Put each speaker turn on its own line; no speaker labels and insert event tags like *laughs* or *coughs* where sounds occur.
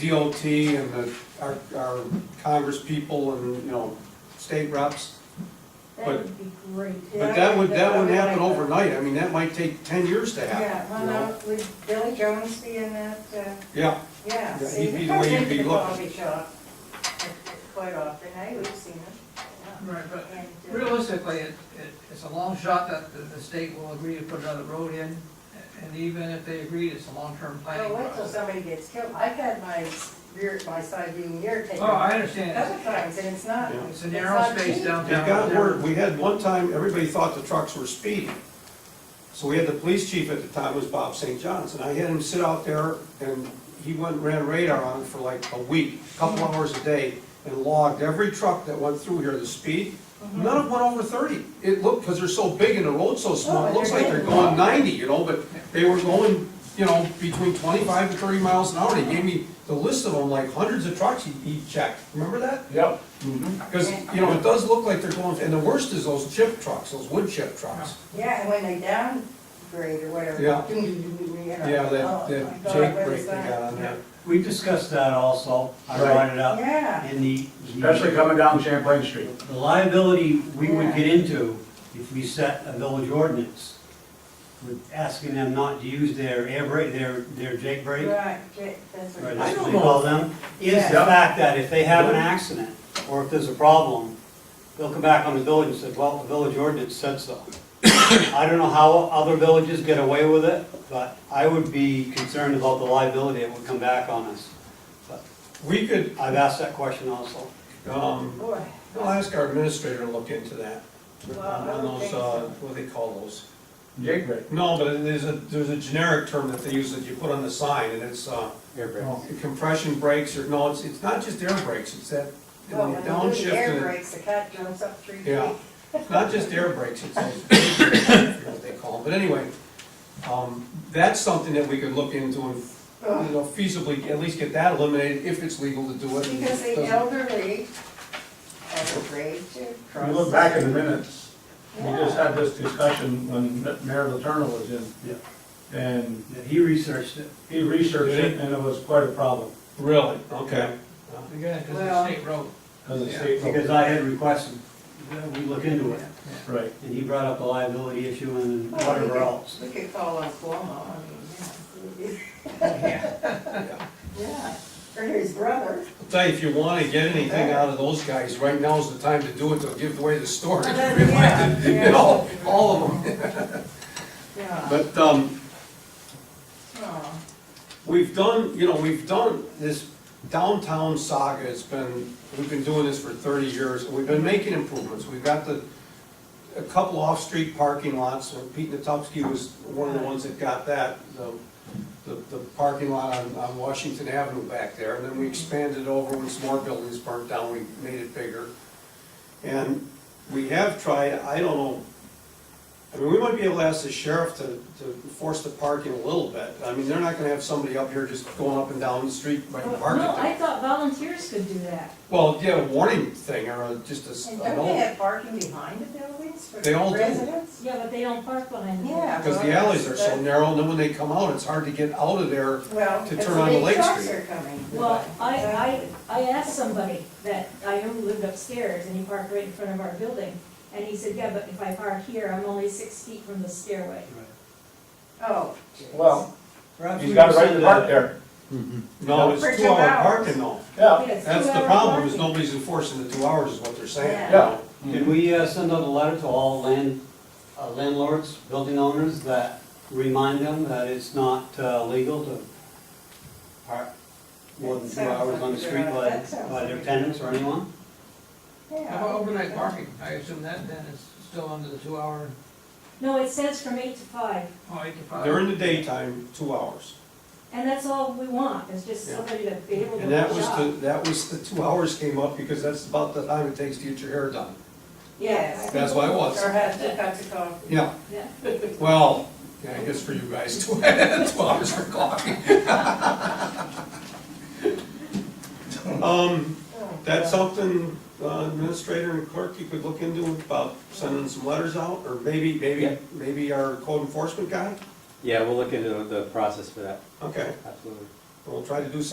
DOT and the, our, our congresspeople and, you know, state reps.
That
But-
would be great.
But that would, that wouldn't happen
Yeah, I-
overnight, I mean, that might take ten years to
Yeah,
happen,
well,
you know?
no, would Bill Jones be in that, uh,
Yeah, Yeah,
yeah. see,
he'd be the way he'd be
comes into the
looking.
Coffee shop quite often, I would have seen him.
Right, but
yeah. And, uh,
realistically, it, it, it's a long shot that the, the state will agree to put another road in, and even if they agreed, it's a long-term planning
Well, Oh, wait till
process.
somebody gets killed, I've had my rear, my side view mirror taken.
Oh, I understand,
Couple times, and it's not.
Yeah.
it's a
not
narrow space
it
cheap.
downtown.
got word, we had one time, everybody thought the trucks were speeding. So we had the police chief at the time was Bob St. John's, and I had him sit out there and he went, and ran radar on it for like a week, a couple hours a day, and logged every truck that went through here, the speed. None of them went over thirty. It looked, because they're so big and the road's so small, it looks like they're going ninety, you know, but they were going, you know, between twenty-five to thirty miles an hour. He gave me the list of them, like hundreds of trucks he, he checked. Remember that?
Yep.
Because, you know, it does look like they're going, and the worst is those chip trucks, those wood chip trucks.
Yeah, and when they downgrade or whatever.
Yeah.
doo- doo- doo- doo, you know,
Yeah,
oh,
that,
my
that
God,
Jake
what
break
is
they
that?
got on there.
We discussed that also, I
Right.
brought it up,
Yeah,
in the. the-
Especially coming down Champlain Street.
The liability we would
Yeah.
get into if we set a village ordinance, with asking them not to use their air brake, their, their Jake brake, or
right, Jake, that's what.
that's what
don't
they call them, is the
Yeah.
fact that if they have an accident, or if there's a problem, they'll come back on the village and say, well, the village ordinance said so. *coughs* I don't know how other villages get away with it, but I would be concerned about the liability that would come back on us. But
We could,
I've asked that question also.
um,
Boy.
we'll ask our administrator to look into that.
Well,
On
I
on
don't
those,
think
uh,
so.
what do they call those?
Jake Brake.
No, but there's a, there's a generic term that they use that you put on the sign and it's, uh,
Air
compression brakes or, no, it's, it's not just air brakes, it's that, you
Well,
know,
when you do the air
downshift.
brakes, the cat jumps up three feet.
Yeah, it's not just air brakes, it's those, I forget what they call them, but anyway, um, that's something that we could look into and you
Ugh.
know, feasibly, at least get that eliminated if it's legal to do it. and
Because
it
the
doesn't-
elderly are afraid to
If
cross.
you look back in the minutes, we
Yeah.
just had this discussion when Mayor Letourneau was in.
Yeah.
And
that he researched it.
he researched it and it was quite a problem,
Really? Okay.
Again, because it's
Well-
a state road.
because the
Yeah.
state.
Because I had requested that we look into it,
Right.
and he brought up the liability issue and
Well, we
whatever
could-
else.
*laughs* We could call on Cuomo, I mean, yeah, it would be- *laughs*
Yeah.
yeah, or his brother.
I'll tell you, if you wanna get anything out of those guys, right now's the time to do it, to give away the storage. *laughs*
Yeah,
You
yeah.
know, all of them.
Yeah,
*laughs* But, um,
oh,
we've done, you know, we've done this downtown saga, it's been, we've been doing this for thirty years, and we've been making improvements, we've got the, a couple off-street parking lots, and Pete Natowski was one of the ones that got that, the, the, the parking lot on, on Washington Avenue back there, and then we expanded over when some more buildings burnt down, we made it bigger. And we have tried, I don't know, I mean, we might be able to ask the sheriff to, to force the parking a little bit. I mean, they're not gonna have somebody up here just going up and down the street by the
Well, No,
parking.
I thought volunteers could do that.
Well, yeah, a warning thing or a- just a, s-
and
an
don't they
old,
have parking behind the buildings for
uh, They all do.
residents?
Yeah, but they don't park behind them.
Yeah.
because the alleys are so narrow, and then when they come out, it's hard to get out of there.
Well,
to
if the
turn onto
big
Lake
trucks
Street.
are coming.
Well, I, I, I asked somebody that I knew lived upstairs and he parked right in front of our building. And he said, yeah, but if I park here, I'm only six feet from the stairway.
Oh. geez.
Well,
Perhaps
he's
we
got a
can
right
send
to
a-
park there.
No, it's
For two
two-hour
hours.
parking though.
Yeah.
Yes,
That's the
two-hour
problem, is
parking.
nobody's enforcing the two hours is what they're saying.
Yeah.
Yeah.
Did we uh, send out a letter to all land, uh, landlords, building owners, that remind them that it's not uh, legal to park more than two
Sounds
hours on the
like
street
they're-
by,
that sounds
by their
like-
tenants or anyone?
Yeah.
How about overnight parking? I assume that then is still under the two-hour,
No, it says from eight to five,
oh, eight to five.
During the daytime, two hours.
and that's all we want, is just
Yeah.
somebody to be able to
And that was the,
shop.
that was the two hours came up because that's about the time it takes to get your hair done.
Yes.
That's why it was.
Or have two cups of coffee.
Yeah,
Yeah.
well, yeah, I guess for you guys, *laughs* two hours for coffee. *laughs* Um,
Oh,
that's
God.
something uh, administrator and clerk you could look into about sending some letters out, or maybe, maybe,
Yeah.
maybe our code enforcement guy?
Yeah, we'll look into the process for that,
Okay,
absolutely.
we'll try to do something